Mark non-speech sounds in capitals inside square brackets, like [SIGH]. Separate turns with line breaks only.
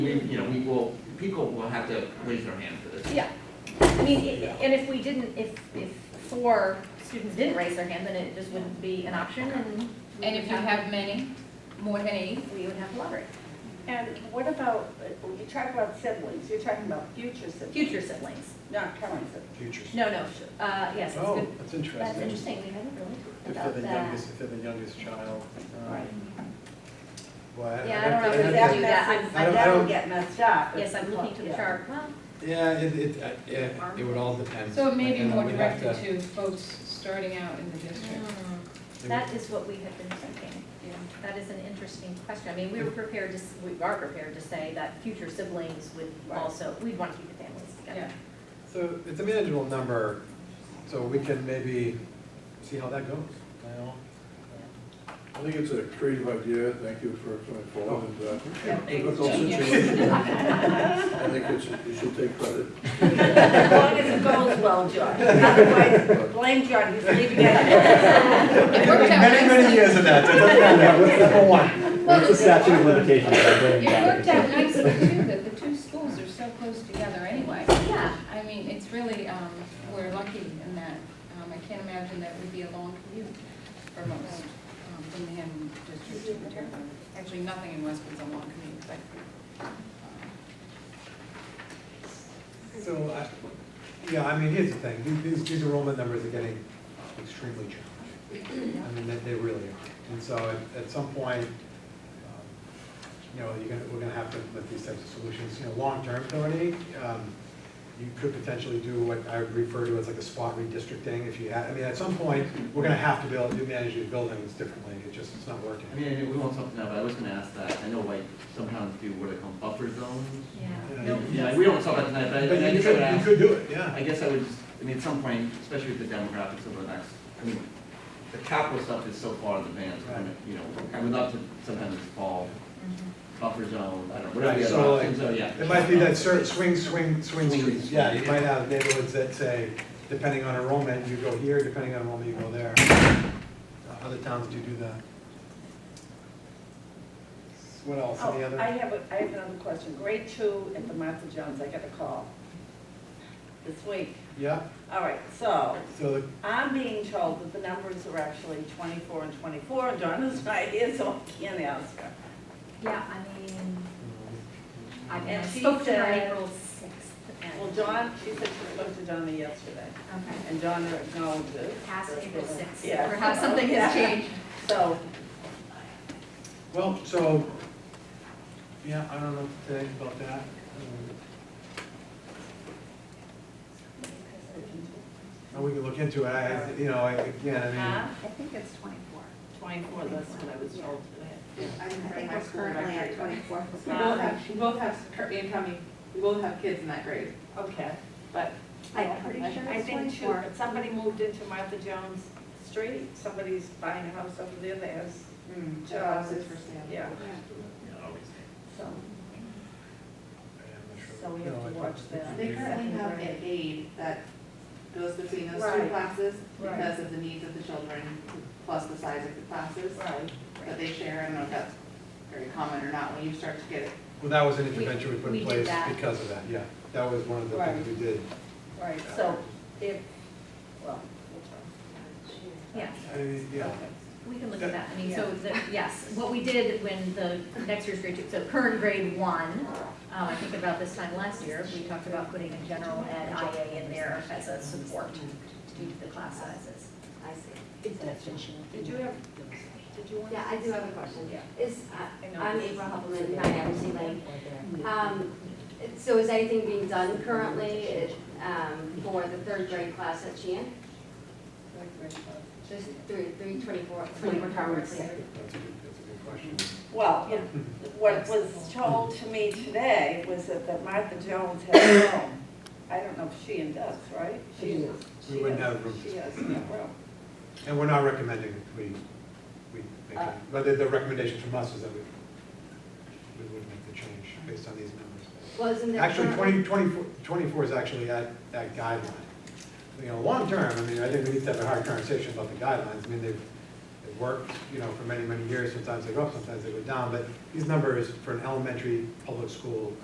We, you know, we will, people will have to raise their hand for this.
Yeah, I mean, i- i- and if we didn't, if, if four students didn't raise their hand, then it just wouldn't be an option and. we
And
would
if you have many, more than eight,
We would have to lottery,
And what about, you talk about siblings, you're talking about future siblings,
future siblings,
not current siblings.
Futures.
no, no, sh- uh, yes, that's
Oh,
good,
that's
that's
interesting. If
interesting, we haven't really talked
they're
about
the
that.
youngest, if they're the youngest child. um,
Right.
Well,
Yeah, I
I-
don't
I'd
know if
have to-
it's
I'd
That
have
do that.
messes-
I don't- I
That'll
don't-
get messed up.
Yes, I'm looking to the
Yeah.
chart, well,
to- Yeah, it, it, I- yeah, it would all depend.
so it may be
And then
more
we'd have
directed
to-
to folks starting out in the district.
it
that is what we have been thinking,
Yeah.
that is an interesting question, I mean, we were prepared to, s- we are prepared to say that future siblings would
Right.
also, we'd want to keep the families
Yeah,
together.
would- So it's a manageable number, so we can maybe see how that goes, you know?
I think it's a creative idea, thank you for coming forward and, uh, difficult
Genius.
situation. I think it's, you should take credit.
As long as it goes well, John. Otherwise, blame John, he's
[LAUGHS]
leaving it.
It worked out
Many, many
nicely,
years of that, so it doesn't matter, what's number one?
[LAUGHS] Well,
What's the statute of limitations on
it
bringing
worked out
back?
nicely too, that the two schools are so close together anyway.
Yeah,
I mean, it's really, um, we're lucky in that, um, I can't imagine that would be a long commute for most, um, from the Hammond district to Materna. Actually, nothing in Westwood's a long commute, but, um,
So, I, yeah, I mean, here's the thing, these- these, these enrollment numbers are getting extremely challenging. I mean, they, they really are. And so at, at some point, um, you know, you're gonna, we're gonna have to implement these types of solutions. You know, long-term, Tony, um, you could potentially do what I would refer to as like a spot redistricting if you had, I mean, at some point, we're gonna have to be able to manage these buildings differently. It just, it's not working.
I mean, we won't talk now, but I was gonna ask that, I know like sometimes do what are called buffer zones.
yeah.
Yeah,
Nope.
you-
Yeah, we don't talk about tonight, but I
But
I
you
guess I would
could, you
ask,
could do it, yeah.
I guess I would, just- I mean, at some point, especially with the demographics over the next, I mean, the capital stuff is so far in advance, we're gonna, you know, I would love to sometimes fall buffer zone, I don't know, whatever
Right,
the other
so like,
options are, yeah.
it might be that cer- swing, swing,
Swing
swing streets,
streets,
yeah, you
yeah.
might have neighborhoods that say, depending on enrollment, you go here, depending on enrollment, you go there. Uh, Other towns do do that. What else, any
Oh, I
other?
have, a- I have another question. Grade two at the Martha Jones, I got a call this week.
Yeah,
All right, so
so, the-
I'm being told that the numbers are actually 24 and 24, and Donna's [LAUGHS] right here, so I can't ask her.
Yeah, I mean, I I
And she
spoke to her
said-
April sixth.
Well, Don, she said she spoke to Donna yesterday,
Okay.
and Donna acknowledges.
Past April sixth.
Yeah.
Perhaps something has
[LAUGHS] Yeah.
changed.
So,
well, so, yeah, I don't know what to say about that. Um, and we can look into it, I, I- you know, I- again, I mean.
huh?
I think it's twenty-four.
Twenty-four, that's what I was told today.
I
bring
think
my
we're
school
currently
record
at
back.
twenty-four.
We both have, we both have, Kirby and Tommy, we both have kids in that grade. Mm,
Okay, but.
I'm pretty sure
I
it's
think too,
24.
somebody moved into Martha Jones Street, somebody's buying a house over there, that has
Houses for sale.
Yeah,
yeah,
always.
so.
I'm not sure.
So we have
No,
to
I think
watch
it's-
that.
They currently have an aide that goes between those two
Right.
classes
Right.
because of the needs of the children, plus the size of the classes
Right.
that they share. I don't know if that's very common or not, when you start to get
Well, that was an intervention we put
We
in
did
place
that.
because of that, yeah. That was one of the
Right.
things we did.
Right, so if, well, we'll
Yeah,
I mean,
try.
yeah.
Okay.
we can look at that. I mean, so, the- yes, what we did when the next year's grade two, so current grade one, um, I think about this time last year, we talked about putting a general ed IA in there as a support due to the class sizes.
I see.
Did you have, did you want?
Yeah, I do have a question.
Yeah.
Is,
I
uh,
know.
I'm April Hubbleman, my Embassy Lane. Um, it- So is anything being done currently it, um, for the third grade class at Sheehan? There's three, three twenty-four, twenty-four hours there.
That's a good, that's a good question.
Well, it-
[LAUGHS]
what was told to me today was that that Martha Jones has a room. I don't know if Sheehan does, right? She
We wouldn't have room.
She has a room.
And we're not recommending we, we make,
Uh.
it. but the, the recommendation from us is that we, we would make the change based on these numbers.
Well, isn't there?
Actually,
currently-
20 24 24 is actually at, that guideline. You know, long-term, I mean, I think we need to have a hard conversation about the guidelines. I mean, they've, They've worked, you know, for many, many years, sometimes they go up, sometimes they go down, but these numbers for an elementary public school